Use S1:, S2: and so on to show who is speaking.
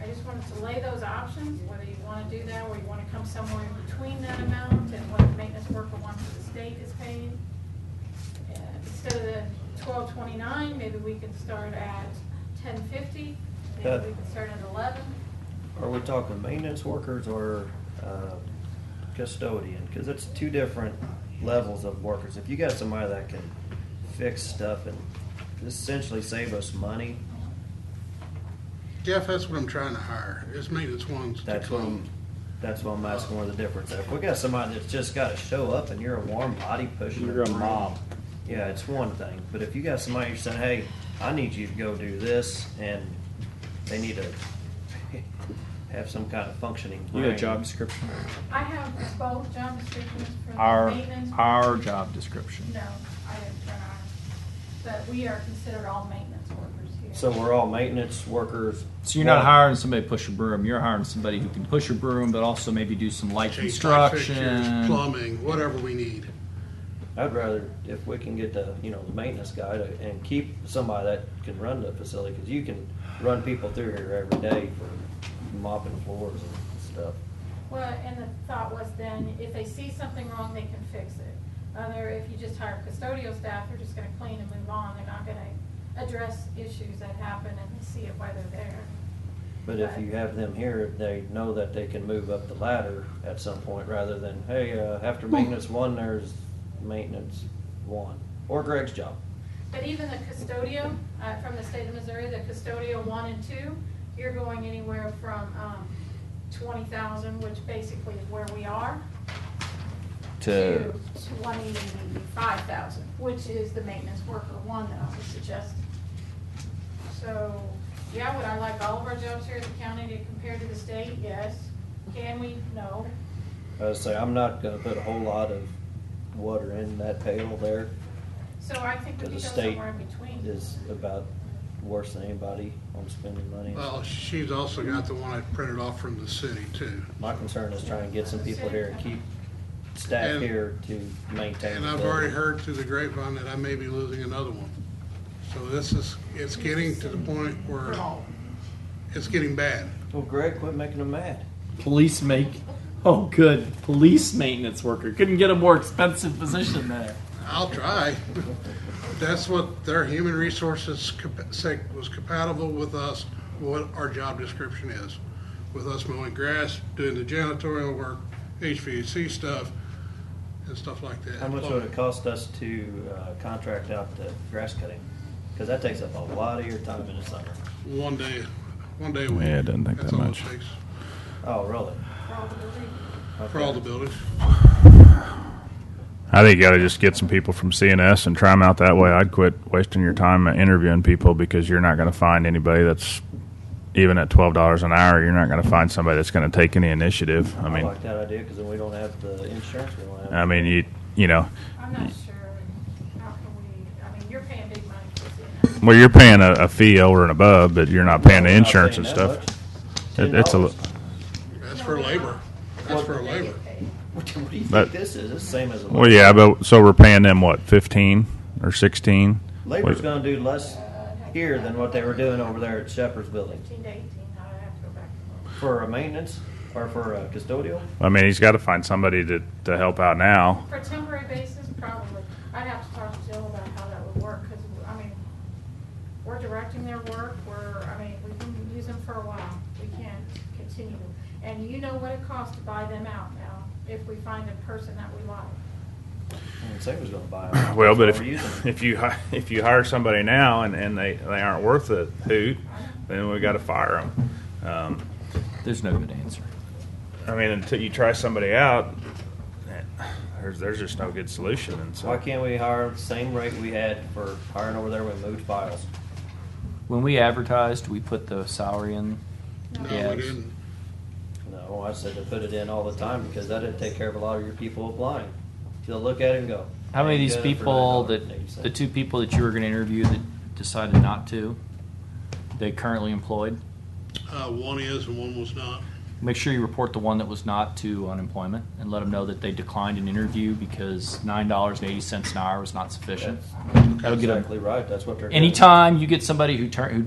S1: I just wanted to lay those options, whether you want to do that, or you want to come somewhere in between that amount and what the maintenance worker wants the state is paying. Uh, Instead of the twelve twenty-nine, maybe we can start at ten fifty,
S2: That-
S1: maybe we can start at eleven.
S2: Are we talking maintenance workers or um, custodian? Because it's two different levels of workers. If you got somebody that can fix stuff and essentially save us money,
S3: Jeff, that's what I'm trying to hire, is maintenance ones to
S2: That's what I'm-
S3: come.
S2: that's why I'm asking where the difference. is. If we got somebody that's just got to show up and you're a warm body pushing.
S4: You're a
S2: them
S4: mob.
S2: through, Yeah, it's one thing. But if you got somebody you're saying, hey, I need you to go do this and they need to have some kind of functioning
S4: You
S2: brain.
S4: got a job description?
S1: I have both job descriptions for the
S4: Our,
S1: maintenance.
S4: our job description.
S1: No, I didn't turn on, but we are considered all maintenance workers here.
S2: So we're all maintenance workers.
S4: So you're not
S2: Well,
S4: hiring somebody to push a broom, you're hiring somebody who can push a broom, but also maybe do some light
S3: Change light fixtures,
S4: construction.
S3: Plumbing, whatever we need.
S2: I'd rather, if we can get the, you know, the maintenance guy to, and keep somebody that can run the facility, because you can run people through here every day for mopping floors and stuff.
S1: Well, and the thought was then, if they see something wrong, they can fix it. Other, if you just hire custodial staff, they're just gonna clean and move on, they're not gonna address issues that happen and they see it while they're there.
S2: But if you have them here, they know that they can move up the ladder at some point, rather than, hey, uh, after maintenance one, there's maintenance one, or Greg's job.
S1: But even the custodial, uh, from the state of Missouri, the custodial one and two, you're going anywhere from, um, twenty thousand, which basically is where we are, to
S4: To,
S1: twenty-five thousand, which is the maintenance worker one that I was suggesting. So, yeah, would I like all of our jobs here in the county to compare to the state? Yes. Can we? No.
S2: I would say, I'm not gonna put a whole lot of water in that pail there,
S1: So I think we could
S2: because
S1: go
S2: the state
S1: somewhere in between.
S2: is about worse than anybody on spending money. and
S3: Well, she's also got the one I printed off from the city too.
S2: My concern is trying to get some people here and keep staff
S3: And-
S2: here to maintain.
S3: And
S2: the
S3: I've already
S2: building.
S3: heard through the grapevine that I may be losing another one. So this is, it's getting to the point where it's getting bad.
S2: Well, Greg, quit making them mad.
S4: police make, oh, good, police maintenance worker. Couldn't get a more expensive position there.
S3: I'll try. That's what their human resources compa- said was compatible with us, what our job description is. With us mowing grass, doing the janitorial work, HVAC stuff, and stuff like that.
S2: How much would it cost us to uh, contract out the grass cutting? Because that takes up a lot of your time in the summer.
S3: One day, one day a week.
S4: Yeah, it doesn't take
S3: That's
S4: that
S3: all it
S4: much.
S3: takes
S2: Oh, really?
S3: For all the buildings.
S5: I think you got to just get some people from CNS and try them out that way. I'd quit wasting your time interviewing people because you're not going to find anybody that's even at twelve dollars an hour. You're not going to find somebody that's going to take any initiative. I
S2: I
S5: mean,
S2: like that idea because then we don't have the insurance. We don't
S5: I
S2: have.
S5: mean, you you know,
S1: I'm not sure how can we, I mean, you're paying big money for CNS.
S5: well, you're paying a, a fee over and above, but you're not paying the
S2: We're not
S5: insurance
S2: paying
S5: and
S2: that
S5: stuff.
S2: much.
S5: It, it's a
S2: $10.
S5: li-
S3: That's for labor. That's for
S1: They
S3: labor.
S1: get paid.
S2: What do you think
S5: But-
S2: this is? It's the same as a.
S5: well, yeah, but so we're paying them what fifteen or sixteen?
S2: Labor's gonna do less here than what they were doing over there at Shepherd's Building
S1: uh, Fifteen to eighteen, I have to go back and look.
S2: for a maintenance or for a custodial.
S5: I mean, he's got to find somebody to to help out now.
S1: For temporary basis, probably. I'd have to talk to Jill about how that would work, because, I mean, we're directing their work, we're, I mean, we can use them for a while. We can't continue them. And you know what it costs to buy them out now, if we find a person that we like.
S2: I mean, Saban's gonna buy them.
S5: Well, but
S2: That's why we're using
S5: if,
S2: them.
S5: if you hi- if you hire somebody now and, and they, they aren't worth a hoot, then we got to fire them. Um,
S4: There's no good answer.
S5: I mean, until you try somebody out, eh, there's there's just no good solution. And so
S2: Why can't we hire the same rate we had for hiring over there when we moved files?
S4: When we advertised, we put the salary in.
S3: No,
S4: Yes.
S3: we didn't.
S2: No, I said to put it in all the time because that'd take care of a lot of your people applying. They'll look at it and go.
S4: How many of
S2: "Ain't
S4: these
S2: good for
S4: people
S2: $9.80."
S4: that, the two people that you were gonna interview that decided not to, they currently employed?
S3: Uh, one is and one was not.
S4: Make sure you report the one that was not to unemployment and let them know that they declined an interview because nine dollars and eighty cents an hour was not sufficient.
S2: That's
S4: That'll get them.
S2: Exactly right, that's what they're. doing.
S4: Anytime you get somebody who turn, who